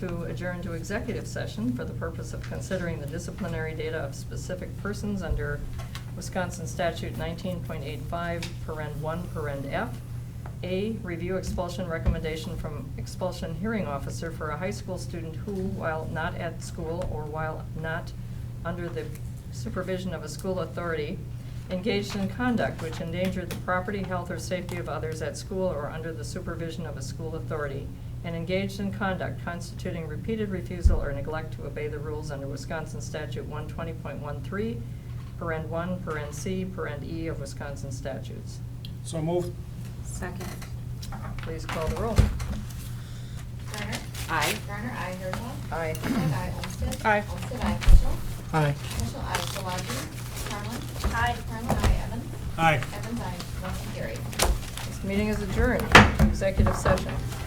to adjourn to executive session for the purpose of considering the disciplinary data of specific persons under Wisconsin statute 19.85, paren 1, paren F. A, review expulsion recommendation from expulsion hearing officer for a high school student who, while not at school or while not under the supervision of a school authority, engaged in conduct which endangered the property, health, or safety of others at school or under the supervision of a school authority, and engaged in conduct constituting repeated refusal or neglect to obey the rules under Wisconsin Statute 120.13, paren 1, paren C, paren E of Wisconsin statutes. So moved. Second. Please call the roll. Garner. Aye. Garner, aye. Herzog. Aye. Herzog, aye. Olmstead. Aye. Olmstead, aye. Peschel. Aye. Peschel, aye. Solagi. Carlin. Aye. Carlin, aye. Evans. Aye. Evans, aye. Motion carried. This meeting is adjourned. Executive session.